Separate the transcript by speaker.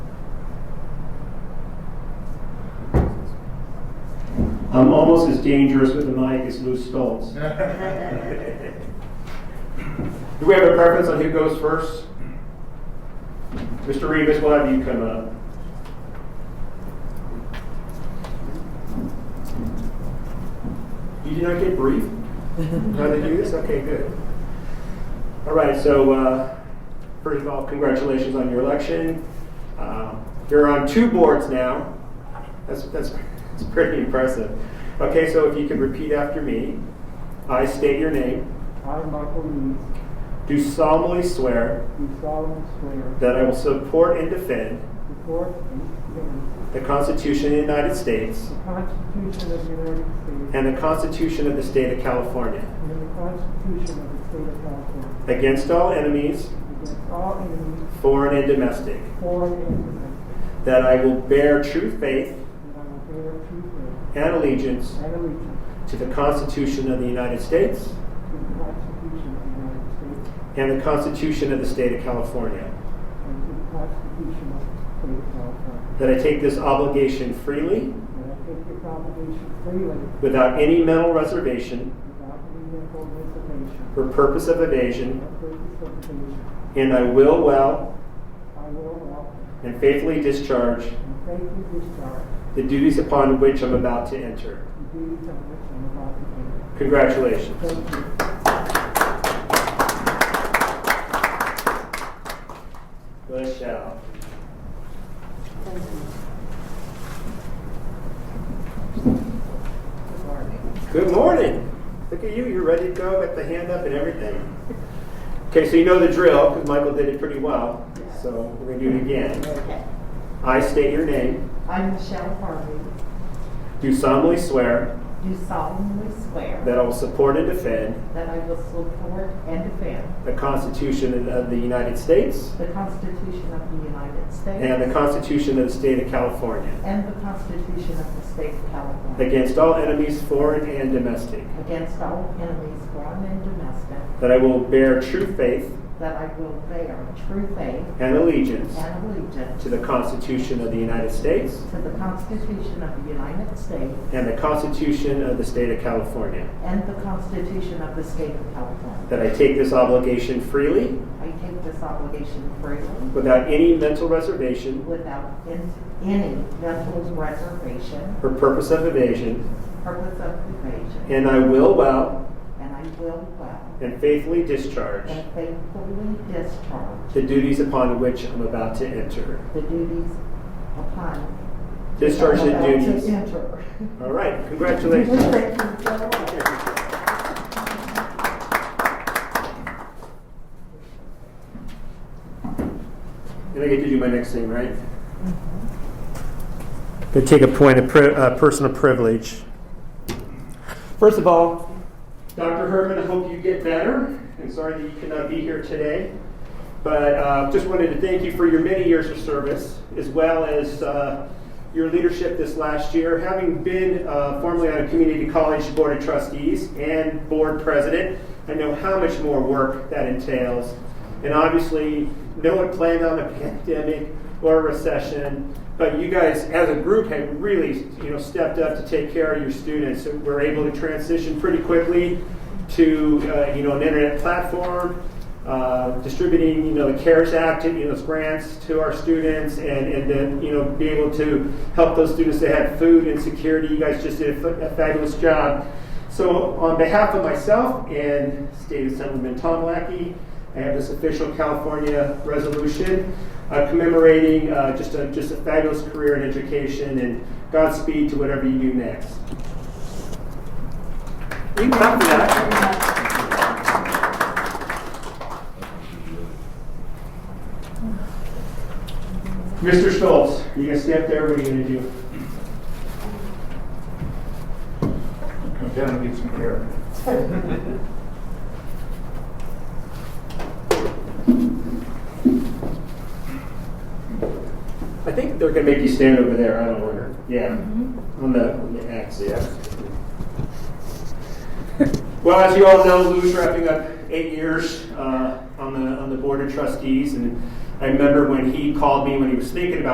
Speaker 1: I'm almost as dangerous with a mic as loose stones. Do we have a preference on who goes first? Mr. Rivas, we'll have you come up. You did not get briefed? How did you do this? Okay, good. All right, so uh, first of all, congratulations on your election. Uh, You're on two boards now. That's, that's, that's pretty impressive. Okay, so if you could repeat after me. I state your name.
Speaker 2: I, Michael Means,
Speaker 1: Do solemnly swear
Speaker 2: do solemnly swear
Speaker 1: that I will support and defend
Speaker 2: to support and defend
Speaker 1: the Constitution of the United States
Speaker 2: the Constitution of the United States
Speaker 1: and the Constitution of the State of California
Speaker 2: and the Constitution of the State of California
Speaker 1: against all enemies,
Speaker 2: against all enemies,
Speaker 1: foreign and domestic,
Speaker 2: foreign and domestic,
Speaker 1: that I will bear true faith
Speaker 2: and I will bear true faith
Speaker 1: and allegiance
Speaker 2: and allegiance
Speaker 1: to the Constitution of the United States
Speaker 2: to the Constitution of the United States
Speaker 1: and the Constitution of the State of California,
Speaker 2: and to the Constitution of the State of California,
Speaker 1: that I take this obligation freely
Speaker 2: and I take this obligation freely
Speaker 1: without any mental reservation
Speaker 2: without any mental reservation
Speaker 1: or purpose of
Speaker 2: or
Speaker 1: evasion,
Speaker 2: purpose of evasion.
Speaker 1: and I will well
Speaker 2: I will well
Speaker 1: and faithfully discharge
Speaker 2: and faithfully discharge
Speaker 1: the duties upon which I'm about to enter.
Speaker 2: the duties of which I am about to enter.
Speaker 1: Congratulations.
Speaker 2: Thank you.
Speaker 1: Let's shout. Good morning. Look at you, you're ready to go, got the hand up and everything. Okay, so you know the drill, because Michael did it pretty well, so we're gonna do it again.
Speaker 3: Okay.
Speaker 1: I state your name,
Speaker 3: I, Michelle Harvey,
Speaker 1: do solemnly swear
Speaker 3: do solemnly swear
Speaker 1: that I will support and defend
Speaker 3: that I will support and defend
Speaker 1: the Constitution of the United States
Speaker 3: the Constitution of the United
Speaker 1: and the
Speaker 3: States
Speaker 1: Constitution of the State of California
Speaker 3: and the Constitution of the State of California
Speaker 1: against all enemies, foreign and domestic,
Speaker 3: against all enemies, foreign and domestic,
Speaker 1: that I will bear true faith
Speaker 3: that I will bear true faith
Speaker 1: and allegiance
Speaker 3: and allegiance
Speaker 1: to the Constitution of the United States
Speaker 3: to the Constitution of the United States
Speaker 1: and the Constitution of the State of California,
Speaker 3: and the Constitution of the State of California.
Speaker 1: that I take this obligation freely
Speaker 3: I take this obligation freely
Speaker 1: without any mental reservation
Speaker 3: without in- any mental reservation
Speaker 1: or purpose of evasion,
Speaker 3: purpose of evasion,
Speaker 1: and I will well
Speaker 3: and I will well
Speaker 1: and faithfully discharge
Speaker 3: and faithfully discharge
Speaker 1: the duties upon which I'm about to enter.
Speaker 3: the duties upon
Speaker 1: Discharge the
Speaker 3: about
Speaker 1: duties.
Speaker 3: to enter.
Speaker 1: All right,
Speaker 3: Thank you
Speaker 1: congratulations.
Speaker 3: so much.
Speaker 1: And I get to do my next thing, right? Going to take a point of pri- uh, personal privilege. First of all, Dr. Herman, I hope you get better. I'm sorry that you could not be here today. But uh, just wanted to thank you for your many years of service, as well as uh, your leadership this last year. Having been uh, formerly on a community college board of trustees and board president, I know how much more work that entails. And obviously, no one planned on a pandemic or a recession, but you guys, as a group, have really you know stepped up to take care of your students. So we're able to transition pretty quickly to uh, you know an internet platform uh, distributing, you know, the CARES Act, you know, those grants to our students and, and then, you know, be able to help those students that had food and security. You guys just did a fa- a fabulous job. So on behalf of myself and State Assemblyman Tom Lackey, I have this official California resolution uh, commemorating uh, just, a, just a fabulous career in education and Godspeed to whatever you do next. You can clap for that. Mr. Schultz, you gonna stay up there? What are you gonna do?
Speaker 4: Come down and get some air.
Speaker 1: I think they're gonna make you stand over there. I don't Mm-hmm. order. Yeah, on the on the X. Yeah. well, as you all know, Lou's wrapping up eight years uh, on the on the board of trustees, and I remember when he called me when he was thinking about.